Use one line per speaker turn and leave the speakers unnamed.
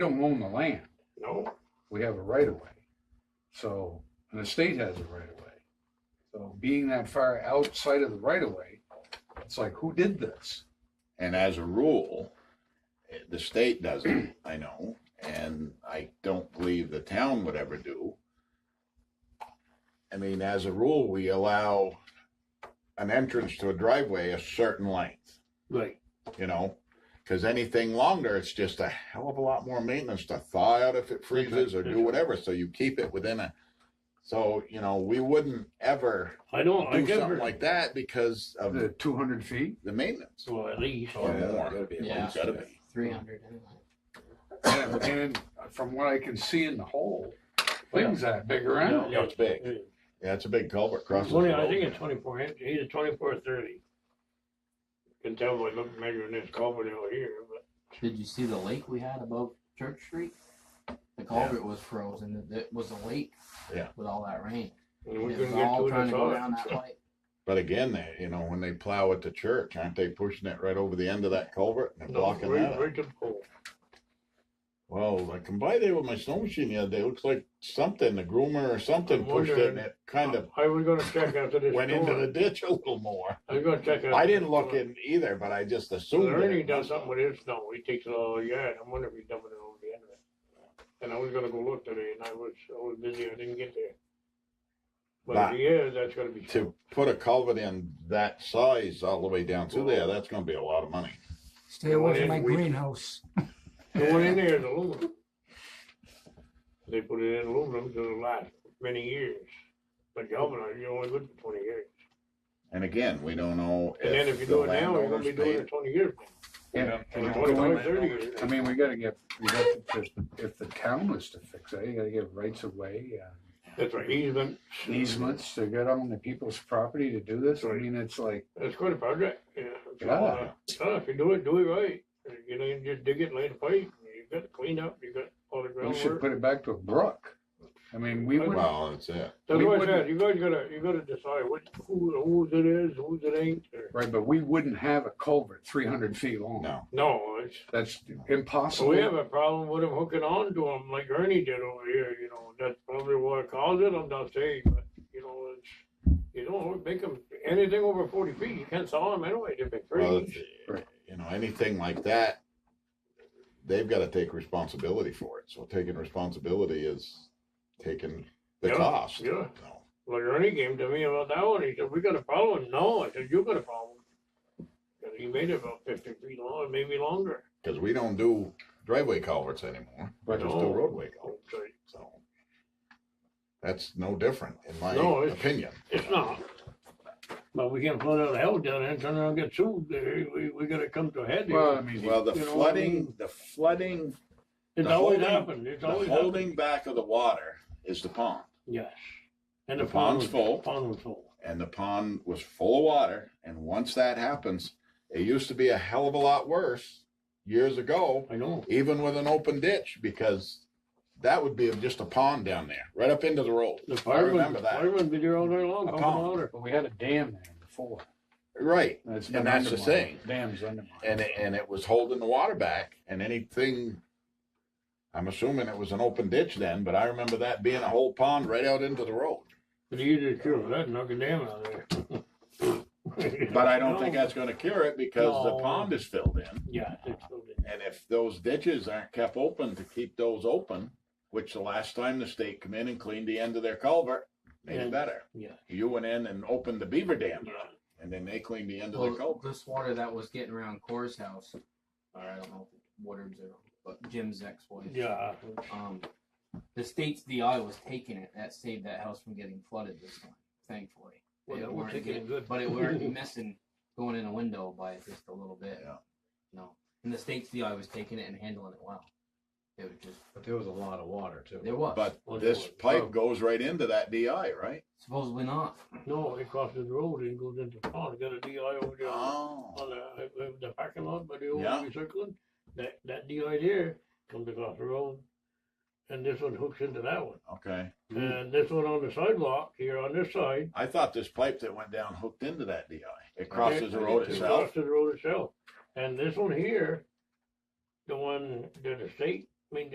don't own the land.
No,
We have a right of way. So, and the state has a right of way. So being that far outside of the right of way, it's like, who did this?
And as a rule, eh, the state doesn't, I know, and I don't believe the town would ever do. I mean, as a rule, we allow an entrance to a driveway a certain length,
right.
you know? Cause anything longer, it's just a hell of a lot more maintenance to thaw out if it freezes or do whatever, so you keep it within a. So, you know, we wouldn't ever
I don't, Oh, I
do
get
something
her.
like that because of
The two hundred feet?
the maintenance
Well, at least,
or
Yeah,
more.
gotta be at
It's
least
gotta
that.
be.
three hundred anyway.
And and from what I can see in the hole, things that big around.
Yeah, it's big.
eh,
Yeah, it's a big culvert crossing.
twenty, I think it's twenty-four inch, either twenty-four or thirty. Can tell by looking, measuring this culvert over here, but
Did you see the lake we had above Church Street? The culvert was frozen. It- It was a lake.
Yeah.
With all that rain.
and
It
we
was
couldn't get to
all
it
trying
at
to go
all.
down that pipe.
But again, they, you know, when they plow at the church, aren't they pushing it right over the end of that culvert and they're
No,
blocking that?
right,
up?
right to the pole.
Well, I come by there with my snow machine the other day. It looks like something, the groomer or something
I'm
pushed it and
wondering-
it kind of
I was gonna check after this.
went into the
storm.
ditch a little more.
I was gonna check.
I
after
didn't
this
look
storm.
in either, but I just assumed. that
Ernie
it
does
must have.
something with his snow, he takes it all yard, I wonder if he's dumping it over the end of it. And I was gonna go look today, and I was, I was busy, I didn't get there. But
But-
if he is, that's gonna be,
To put a culvert in that size all the way down through there, that's gonna be a lot of money.
Stay away
Yeah,
from my
we-
greenhouse.
the one in there is aluminum. They put it in aluminum to last many years, but galvanized, you're only good for twenty years.
And again, we don't know.
And then if you
the
do it now, you're gonna
landowners
be doing
paid-
it twenty years.
And-
Or
and
25,
going-
30 years.
I mean, we gotta get, we got to just, if the town was to fix it, you gotta get rights of way, uh,
That's right, easement.
easements to get on the people's property to do this. I mean, it's like,
It's quite a project, yeah. So,
Yeah.
uh, uh, if you do it, do it right. You know, you just dig it, and lay the pipe, you got to clean up, you got all the
we should
groundwork.
put it back to a brook. I mean, we would,
Well, that's it.
That's
we
what I
wouldn't-
said, you guys gotta, you gotta decide what, who, whose it is, whose it ain't. or-
right, but we wouldn't have a culvert three hundred feet long.
No.
No, it's,
That's
so we have
impossible.
a problem with them hooking on to them like Ernie did over here, you know, that's probably what caused it, I'm not saying, but, you know, it's, you don't make them, anything over forty feet, you can't saw them anyway, they're big
Well,
trees.
it's- uh, you know, anything like that, they've gotta take responsibility for it, so taking responsibility is taking the
Yeah,
cost.
yeah.
you know.
Well, Ernie came to me about that one. He said, "We got a problem." No, I said, "You got a problem." And he made it about fifty feet long, maybe longer.
Cause we don't do driveway culverts anymore, we
Right.
just do roadway
So
culverts, so. That's no different, in my
No, it's-
opinion.
It's not. But we can't flood out of hell down there and turn around and get sued. There, we we gotta come to a head. here.
Well, I mean,
Well, the
You know what I
flooding,
mean?
the flooding,
it's
the
always
holding-
happened. It's
the
always happened.
holding back of the water is the pond.
Yes. And
The
the pond
pond's
was
full.
Pond was full.
and the pond was full of water. And once that happens, it used to be a hell of a lot worse years ago,
I know.
even with an open ditch, because that would be just a pond down there, right up into the road.
The
I
firemen,
remember that.
firemen be there all day long,
A
pumping
pond.
water.
But we had a dam there before.
Right.
That's
And
been
that's the
undermined.
thing.
Dam's undermined.
And it, and it was holding the water back. And anything, I'm assuming it was an open ditch then, but I remember that being a whole pond right out into the road.
But you just cure that, knock a dam out of there.
But I don't think
No.
that's going to cure it because the
No.
pond is filled in.
Yeah, it's filled in.
And if those ditches aren't kept open to keep those open, which the last time the state come in and cleaned the end of their culvert, made
Yeah.
it better.
Yeah.
You went in and opened the beaver dam
Yeah.
and then they cleaned the end of the
Well,
culvert.
this water that was getting around Core's house, or I don't know if Woodard's or but Jim's ex-wife.
Yeah,
Um, the state's DI was taking it. That saved that house from getting flooded this time, thankfully.
Well,
They
that
weren't
would take it
getting-
good.
But it were missing going in a window by just a little bit.
Yeah.
No, and the state's DI was taking it and handling it well. It was just
But there was a lot of water too.
there was
But
Well,
this
it was- Oh.
pipe goes right into that DI, right?
supposedly not.
no, it crosses the road and goes into the pond. Got a DI over there on
Oh,
the, uh, the parking lot by the old
Yeah.
recycling. That that DI there comes across the road, and this one hooks into that one.
okay.
And this one on the sidewalk here on this side
I thought this pipe that went down hooked into that DI. It crosses the road
it
itself.
crosses the road itself. And this one here, the one that the state